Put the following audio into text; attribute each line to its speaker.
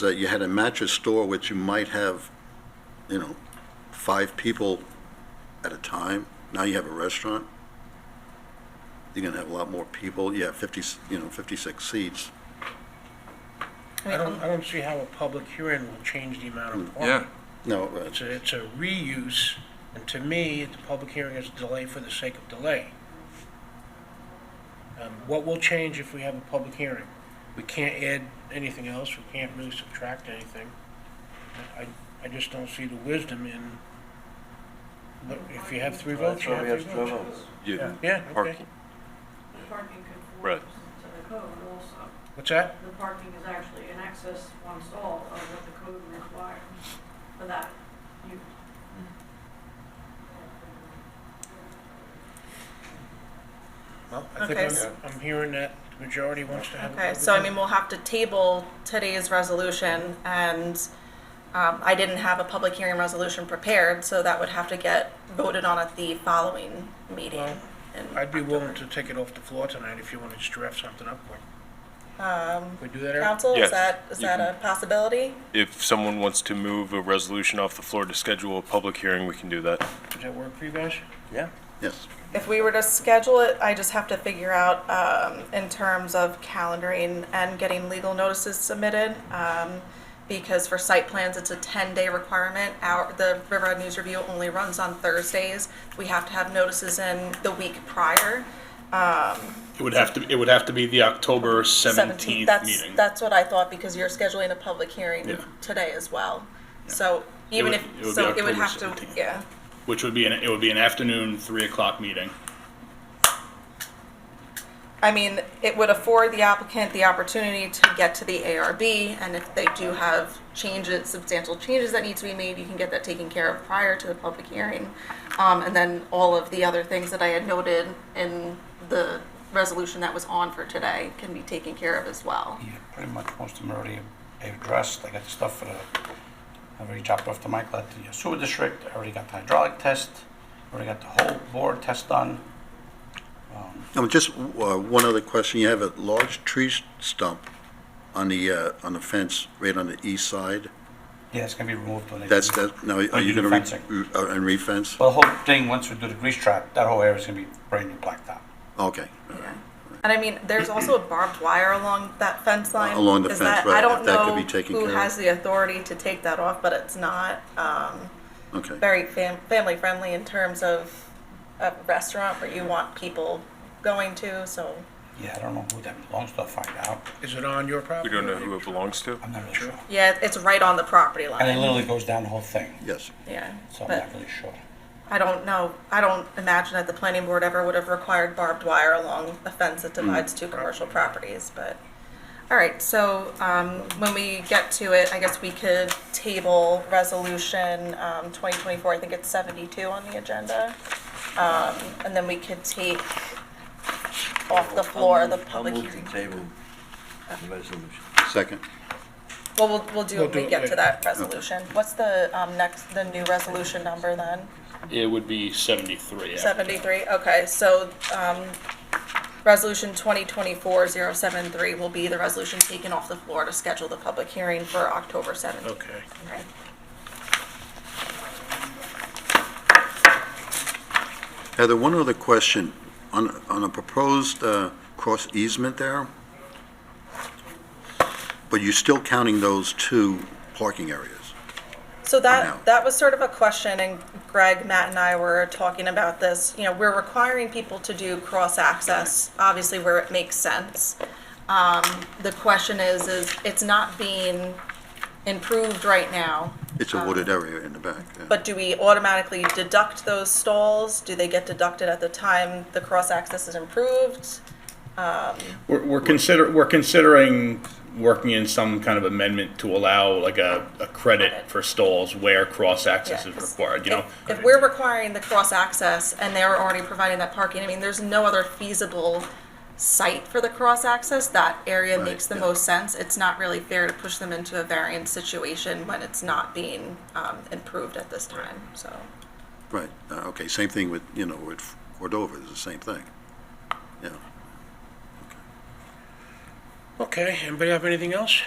Speaker 1: that you had a mattress store which you might have, you know, five people at a time. Now you have a restaurant. You're gonna have a lot more people. You have 50, you know, 56 seats.
Speaker 2: I don't, I don't see how a public hearing will change the amount of
Speaker 3: Mm, Yeah,
Speaker 2: parking.
Speaker 1: No, uh,
Speaker 2: It's a, it's a reuse, and to me, the public hearing is delay for the sake of delay. Um, What will change if we have a public hearing? We can't add anything else, we can't really subtract anything. I, I just don't see the wisdom in, but if you have three votes,
Speaker 4: That's
Speaker 2: you
Speaker 4: why we
Speaker 2: have
Speaker 4: have
Speaker 2: three
Speaker 4: three
Speaker 2: votes.
Speaker 4: votes.
Speaker 3: you,
Speaker 2: Yeah, okay.
Speaker 3: parking,
Speaker 5: Parking
Speaker 3: Right.
Speaker 5: conforms to the code also.
Speaker 2: What's that?
Speaker 5: The parking is actually an excess one stall of what the code requires for that use.
Speaker 2: Well, I think
Speaker 6: Okay,
Speaker 2: I'm,
Speaker 6: s-
Speaker 2: I'm hearing that the majority wants to have a public
Speaker 6: Okay, so I mean,
Speaker 2: hearing.
Speaker 6: we'll have to table today's resolution, and um, I didn't have a public hearing resolution prepared, so that would have to get voted on at the following meeting.
Speaker 2: Well,
Speaker 6: in
Speaker 2: I'd be willing
Speaker 6: October.
Speaker 2: to take it off the floor tonight if you want to just draft something up quick. Can
Speaker 6: Um,
Speaker 2: we do that, Eric?
Speaker 6: Council,
Speaker 3: Yes,
Speaker 6: is that, is
Speaker 3: you
Speaker 6: that
Speaker 3: can-
Speaker 6: a possibility?
Speaker 3: if someone wants to move a resolution off the floor to schedule a public hearing, we can do that.
Speaker 2: Does that work for you guys?
Speaker 4: Yeah.
Speaker 1: yes.
Speaker 6: If we were to schedule it, I just have to figure out um, in terms of calendaring and getting legal notices submitted. um, Because for site plans, it's a 10-day requirement. Our, the River Road News Review only runs on Thursdays. We have to have notices in the week prior.
Speaker 7: It would have to, it would have to be the October
Speaker 6: 17th,
Speaker 7: seventeenth
Speaker 6: that's,
Speaker 7: meeting.
Speaker 6: that's what I thought because you're scheduling a public hearing
Speaker 7: Yeah.
Speaker 6: today as well. So even
Speaker 7: would-
Speaker 6: if,
Speaker 7: it would be
Speaker 6: so it would
Speaker 7: October
Speaker 6: have to,
Speaker 7: 17th.
Speaker 6: yeah.
Speaker 7: Which would be, an it would be an afternoon, three o'clock meeting.
Speaker 6: I mean, it would afford the applicant the opportunity to get to the ARB, and if they do have changes, substantial changes that need to be made, you can get that taken care of prior to the public hearing. Um, and then all of the other things that I had noted in the resolution that was on for today can be taken care of as well.
Speaker 8: Yeah, pretty much most of them already addressed, I got stuff for the, I already dropped off to Michael at the sewer district, I already got the hydraulic test, already got the whole board test done.
Speaker 1: Um, just uh, one other question. You have a large tree stump on the, uh, on the fence right on the east side.
Speaker 8: Yeah, it's gonna be removed when they.
Speaker 1: That's, that, now, are you gonna re-
Speaker 8: Fencing.
Speaker 1: re- uh, and refence?
Speaker 8: Well, the whole thing, once we do the grease trap, that whole area's gonna be brand new blacktop.
Speaker 1: Okay.
Speaker 6: And I mean, there's also a barbed wire along that fence line.
Speaker 1: Uh, Along the
Speaker 6: Is
Speaker 1: fence,
Speaker 6: that-
Speaker 1: right,
Speaker 6: I don't
Speaker 1: if that could
Speaker 6: know
Speaker 1: be taken
Speaker 6: who
Speaker 1: care of.
Speaker 6: has the authority to take that off, but it's not, um,
Speaker 1: Okay.
Speaker 6: very fam- family friendly in terms of a restaurant where you want people going to. So
Speaker 8: Yeah, I don't know who that belongs to, I'll find out,
Speaker 2: Is it on your
Speaker 3: We
Speaker 2: property?
Speaker 3: don't know who it belongs to.
Speaker 8: I'm not really sure.
Speaker 6: yeah, it's right on the property line.
Speaker 8: And it literally goes down the whole thing,
Speaker 1: Yes.
Speaker 6: yeah,
Speaker 8: so I'm
Speaker 6: but
Speaker 8: not really sure.
Speaker 6: I don't know. I don't imagine that the planning board ever would have required barbed wire along a fence
Speaker 4: Hmm.
Speaker 6: that divides two commercial properties. But all right, so um, when we get to it, I guess we could table resolution um, 2024. I think it's 72 on the agenda, um, and then we could take off the floor the public
Speaker 4: I'll move
Speaker 6: hearing.
Speaker 4: to table the resolution.
Speaker 1: Second.
Speaker 6: Well, we'll, we'll do
Speaker 2: We'll
Speaker 6: it when
Speaker 2: do
Speaker 6: we
Speaker 2: it
Speaker 6: get to
Speaker 2: later.
Speaker 6: that resolution. What's the um, next, the new resolution number then?
Speaker 7: It would be seventy-three. after.
Speaker 6: 73, okay, so, um, resolution 2024-073 will be the resolution taken off the floor to schedule the public hearing for October 7th.
Speaker 2: Okay.
Speaker 6: Right.
Speaker 1: Heather, one other question. On, on a proposed uh, cross easement there, but you're still counting those two parking areas?
Speaker 6: So
Speaker 1: No.
Speaker 6: that, that was sort of a question, and Greg, Matt, and I were talking about this. You know, we're requiring people to do cross-access, obviously where it makes sense. Um, The question is, is it's not being improved right now.
Speaker 1: It's a wooded area in the back. yeah.
Speaker 6: But do we automatically deduct those stalls? Do they get deducted at the time the cross-access is improved?
Speaker 7: We're, we're consider, we're considering working in some kind of amendment to allow like a, a credit for stalls where cross-access
Speaker 6: Yeah,
Speaker 7: is
Speaker 6: 'cause
Speaker 7: required, you know?
Speaker 6: if- If we're requiring the cross-access and they're already providing that parking, I mean, there's no other feasible site for the cross-access. That area
Speaker 1: Right,
Speaker 6: makes the
Speaker 1: yeah.
Speaker 6: most sense. It's not really fair to push them into a variance situation when it's not being um, improved at this time, so.
Speaker 1: Right, Uh, okay, same thing with, you know, with Cordova, it's the same thing. Yeah.
Speaker 2: Okay, anybody have anything else?